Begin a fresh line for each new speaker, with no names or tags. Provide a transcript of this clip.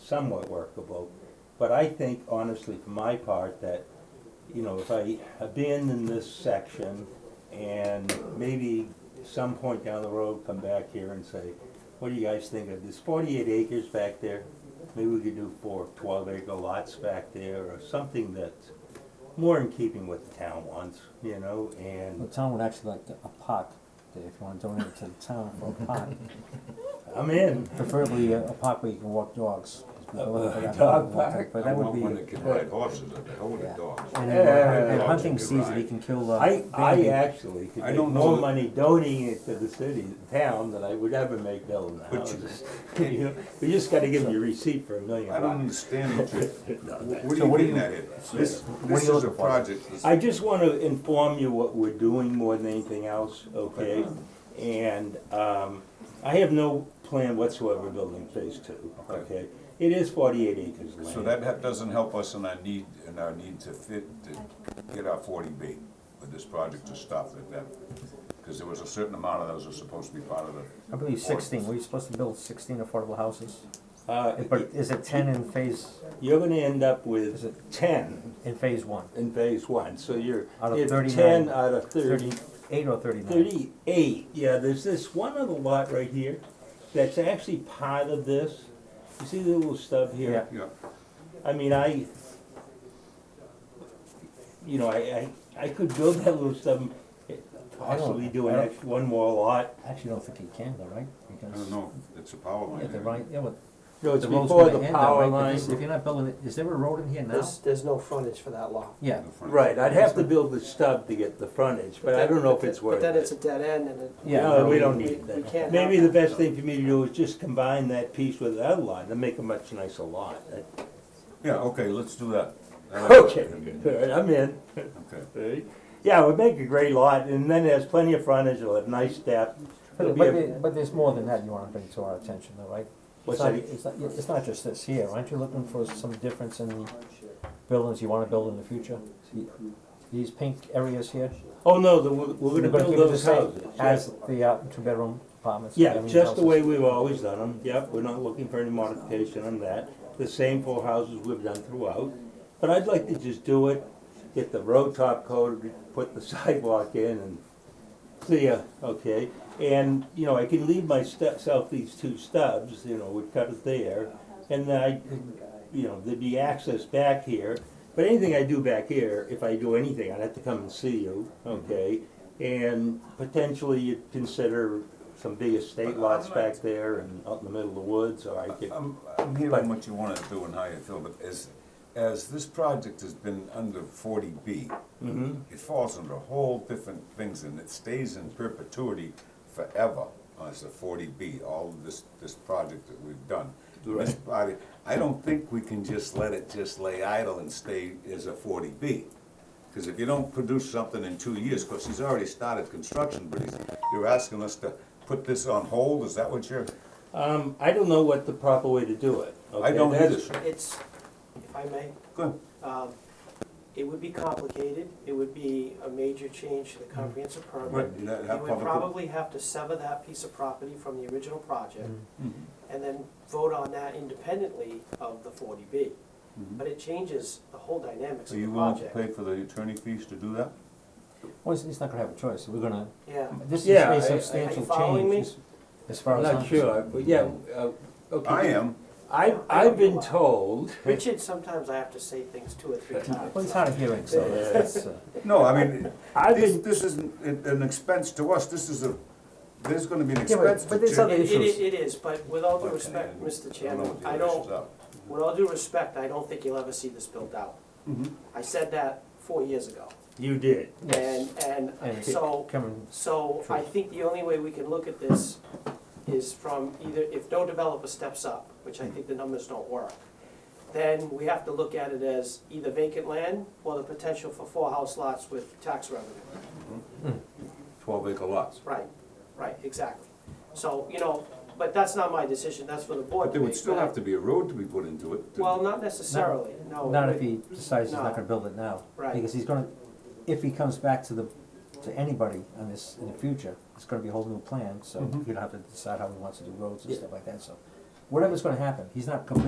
somewhat workable. But I think honestly, for my part, that, you know, if I abandon this section and maybe some point down the road, come back here and say, what do you guys think of this forty-eight acres back there? Maybe we could do four 12 acre lots back there or something that's more in keeping with the town wants, you know,
The
and
town would actually like a park, Dave, if you wanna donate it to the town for a park,
I'm in.
preferably a, a park where you can walk dogs. 'cause we're looking for
A
that
dog
dog walk,
park?
But that would
I want one that
be,
can ride horses, and I want
Yeah.
a dog.
and
Yeah.
in, in hunting
Dogs you could
season, you
ride.
can kill, uh,
I, I
banded.
actually could
I
make
don't know
more
that-
money donating it to the city, the town, than I would ever make building the
But you-
houses. You know, you just gotta give them your receipt for a million
I don't
bucks.
understand what you, what
So
are you
what do
getting
you-
at here? This,
what are
this
you
is a
looking for?
project, that's-
I just wanna inform you what we're doing more than anything else, okay? And, um, I have no plan whatsoever building phase two,
Okay.
okay? It is forty-eight acres of land.
so that ha- doesn't help us in our need, in our need to fit, to get our forty B with this project to stop at that. Because there was a certain amount of those are supposed to be part of the.
I believe sixteen,
ordinance.
were you supposed to build sixteen affordable houses?
Uh,
But is it ten in phase,
you're gonna end up
Is
with
it-
ten
in phase one?
in phase one, so you're,
Out of
if
39.
ten out of thirty,
Thirty-eight or thirty-nine?
Thirty-eight, yeah, there's this one other lot right here that's actually part of this. You see the little stub here?
Yeah,
I mean, I, you know, I, I, I could build that little stub, possibly do an
I don't-
ex, one more lot.
Actually, don't think you can though, right?
I
Because
don't know, it's a power line.
Yeah, the
isn't it?
right, yeah, but
No, it's
the road's
before
gonna
the
end though,
power
right? But
line.
this- If you're not building it, is there a road in here now?
There's, there's no frontage for that lot.
Yeah,
The front.
Right, I'd have to build the stub to get the frontage, but I don't know if it's worth it.
But then it's a dead end and it.
Yeah,
No, we don't
we-
need
we
that.
can't
Maybe
have
the
that.
best thing for me to do is just combine that piece with that lot and make a much nicer lot.
Yeah, okay, let's do that. That'll-
Okay, all right, I'm in.
Okay.
Yeah, it would make a great lot, and then there's plenty of frontage, it'll have nice depth. It'll
But,
be
but,
a-
there- but there's more than that you wanna bring to our attention though, right?
What's
It's not, e,
that?
it's not, it's not just this here, aren't you looking for some difference in buildings you wanna build in the future? These pink areas here?
Oh, no, the- we're we're gonna
You're
build
keep it the
those
same
houses.
As the, uh, two-bedroom apartments?
Yeah,
condominium
just the way
houses?
we've always done them, yep, we're not looking for any modification on that. The same four houses we've done throughout, but I'd like to just do it, get the road top coated, put the sidewalk in and clear, okay? And, you know, I can leave my stu- self these two stubs, you know, we'd cut it there, and then I could, you know, there'd be access back here. But anything I do back here, if I do anything, I'd have to come and see you, okay? And potentially you'd consider some big estate lots back there and out in the middle of the woods, or I could,
I'm, I'm hearing what you wanna do and how you feel, but as, as this project has been under forty B,
Mm-hmm.
it falls under whole different things and it stays in perpetuity forever as a forty B, all of this, this project that we've done. This
Right.
body, I don't think we can just let it just lay idle and stay as a forty B. Cause if you don't produce something in two years, cause he's already started construction, but he's, you're asking us to put this on hold, is that what you're,
um, I don't know what the proper way to do it, okay?
I don't either,
That's-
sir.
It's, if I may,
Good.
um, it would be complicated, it would be a major change to the comprehensive
Right,
permit.
you know,
You
have
would
public-
probably have to sever that piece of property from the original project and then vote on that independently of the forty B. But it changes the whole dynamics
So
of the
you willing to
project.
pay for the attorney fees to do that?
Well, he's- he's not gonna have a choice, we're gonna,
Yeah,
this is
Yeah, I- I-
a substantial
following me?
change, as- as far
I'm
as I'm.
not sure,
concerned.
but yeah, uh, okay.
I am.
I, I've been told,
Richard, sometimes I have to say things two or three times.
Well, he's hard of hearing, so that's, that's, uh,
No, I mean,
I've
this,
been,
this isn't an an expense to us, this is a, there's gonna be an
Yeah, but-
expense to.
but there's
Jim.
other-
It,
issues.
it, it is, but with all due
Okay,
respect, Mr. Chairman,
what the
I
other
don't,
issues are.
with all due respect, I don't think you'll ever see this built out.
Mm-hmm.
I said that four years ago,
you did.
yes,
and, and
And-
so,
Cameron,
so I think the only way we can look at this is from either, if no developer steps up, which I think the numbers don't work, then we have to look at it as either vacant land or the potential for four house lots with tax revenue.
Twelve acre lots.
Right, right, exactly. So, you know, but that's not my decision, that's for the board
But
to
there
make.
would still have to be a road to be put into it. to-
Well, not necessarily, no.
not
it
if he decides he's
No.
not gonna build it now.
Right.
Because he's gonna, if he comes back to the, to anybody on this, in the future, it's gonna be a whole new plan, so he'll have to decide how he wants to do roads and
Yeah.
stuff like that, so. Whatever's gonna happen, he's not completely